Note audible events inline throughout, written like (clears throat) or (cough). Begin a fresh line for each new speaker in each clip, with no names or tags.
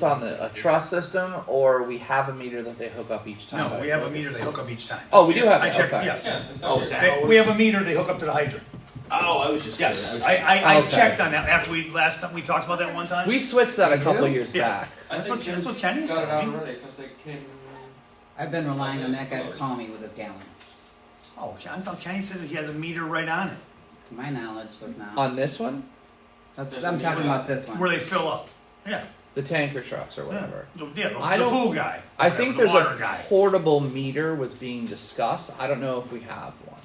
It's on the, a truss system, or we have a meter that they hook up each time.
No, we have a meter they hook up each time.
Oh, we do have
I
that,
checked,
okay.
yes.
Oh, is that?
They- We have a meter they hook up to the hydrant.
Oh, I was just.
Yes,
kidding.
I,
was just-
I, I
Okay.
checked on that after we, last time, we talked about that one time.
We switched that a couple of years
Yeah.
back.
I
That's
think
what- that's what
Jim's Got
Kenny
it
said.
out already, cause they came.
I've been relying on that guy to call me with his gallons.
Oh, I thought Kenny said that he has a meter right on it,
To my knowledge, there's not.
On this one,
That's, I'm talking about this
where
one.
they fill up. Yeah,
the tanker trucks or
yeah,
whatever.
The- yeah,
I
the- the
don't-
pool guy.
I think
whatever,
there's
the
a
water guy.
portable meter was being discussed. I don't know if we have one.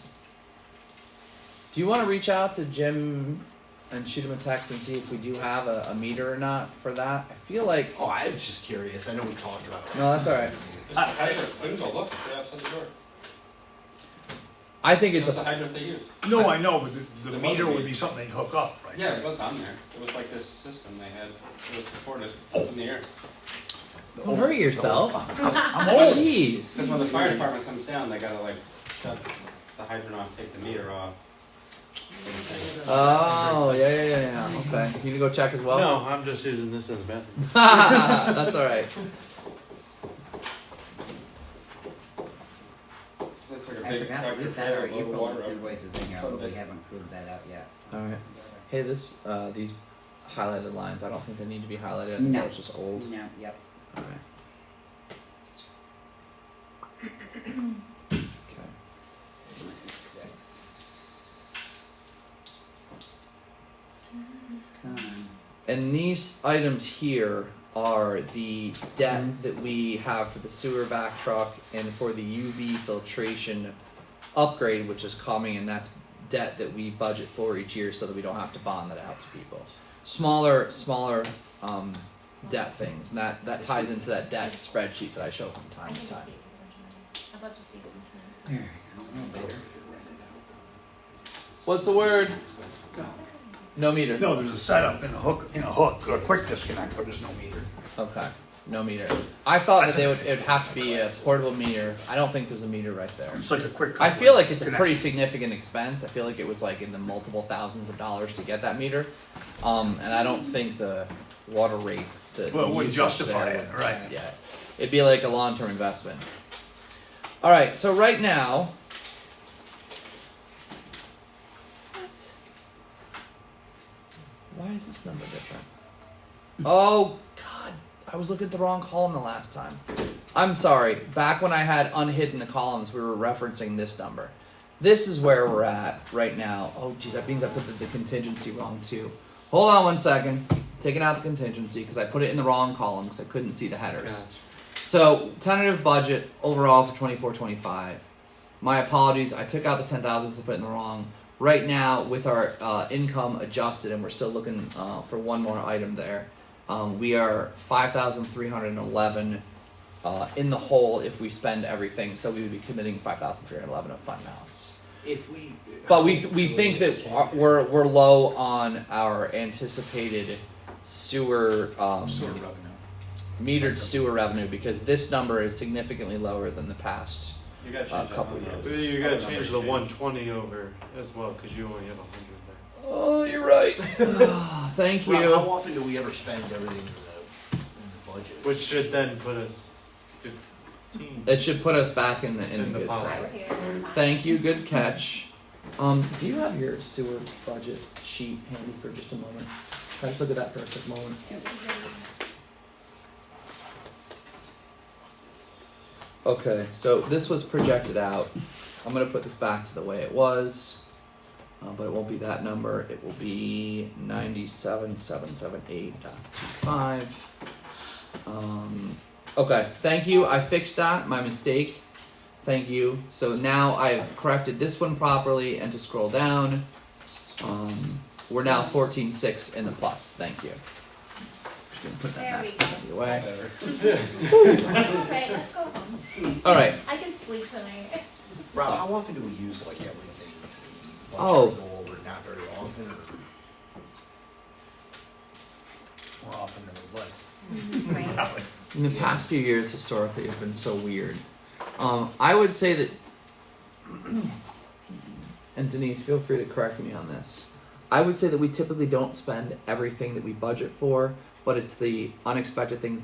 Do you want to reach out to Jim and shoot him a text and see if we do have a, a meter or not for that? I feel like
Oh, I was just curious, I know we talked about that.
no, that's all right.
It's Ah, the hydrant, I can go look, they're outside the door.
I think it's
That's the
a,
hydrant they use.
No, I know, but the, the
The
meter
buzzer
would be something they'd hook up, right?
Yeah, it was on there. It was like this system they had, it was supported up in the air.
don't hurt yourself.
I'm old.
Cause
Jeez.
when the fire department comes down, they gotta like shut the hydrant off, take the meter off. everything.
Oh yeah yeah yeah yeah. Okay, you need to go check as well.
No, I'm just using this as a bathroom.
(laughs) That's all right.
It's like took a
I
big
forgot to
tractor
leave that
trailer,
our
load of water
April
up.
invoices in here, although we haven't proved that out yet. so.
All right. Hey, this uh, these highlighted lines. I don't think they need to be highlighted. I think
No.
that was just old.
No, yep.
All right. (clears throat) Okay.
Six. Come on.
And these items here are the debt that we have for the sewer vac truck and for the UV filtration upgrade, which is coming, and that's debt that we budget for each year so that we don't have to bond that out to people. Smaller, smaller um, debt things, and that, that ties into that debt spreadsheet that I show from
I
time
need to
to
see
time.
it was originally. I'd love to see it which
There,
means.
I don't know better.
What's the word? No meter.
No, there's a setup and a hook, and a hook, or a quick disconnect, but there's no meter.
Okay. No meter. I thought that they would it would have to be a portable meter. I don't think there's a meter right there.
It's like a quick.
I feel like it's a
connection.
pretty significant expense. I feel like it was like in the multiple thousands of dollars to get that meter, um, and I don't think the water rate the
Well, it
usage
wouldn't justify
there
it,
would-
right.
Yeah, it'd be like a long term investment. All right, so right now, what? Why is this number different? Oh God, I was looking at the wrong column the last time. I'm sorry. Back when I had unhidden the columns, we were referencing this number. This is where we're at right now. Oh, geez, that means I put the, the contingency wrong too. Hold on one second. Taking out the contingency because I put it in the wrong column because I couldn't see the headers. So tentative budget overall for 24-25. My apologies. I took out the ten thousand because I put it in the wrong. Right now, with our uh, income adjusted, and we're still looking uh, for one more item there. Um, we are five thousand three hundred eleven uh, in the hole if we spend everything. So we would be committing five thousand three hundred eleven of fund balance.
If we.
But we we think that our- we're we're low on our anticipated sewer um,
Sewer revenue.
metered sewer revenue because this number is significantly lower than the past.
You gotta
Uh,
change that
couple
one. though.
years.
You gotta
That
change
number
the
changed.
120 over as well, because you only have 100 there.
Oh, you're (laughs) right. Ah, Thank you.
Well, how often do we ever spend everything in the, in the budget?
Which should then put us 15.
It should put us back in the in,
In
the,
the
good
pot.
side.
Here.
Thank you. Good catch. Um, do you have your sewer budget sheet handy for just a moment? Can I just look at that for a quick moment? Okay, so this was projected out. I'm gonna put this back to the way it was, uh, but it won't be that number. It will be ninety-seven seven seven eight dot two five. Um, okay, thank you. I fixed that. My mistake. Thank you. So now I've corrected this one properly, and to scroll down, um, we're now fourteen six in the plus. Thank you. Just gonna put
There
that
we
back
go.
the way.
All right, let's go home.
All right.
I can sleep tonight.
Rob, how often do we use like everything? Budget
Oh.
Go over, not very often, or
More often than we would.
Right.
in the past few years historically have been so weird. Um, I would say that, (clears throat) and Denise, feel free to correct me on this. I would say that we typically don't spend everything that we budget for, but it's the unexpected things that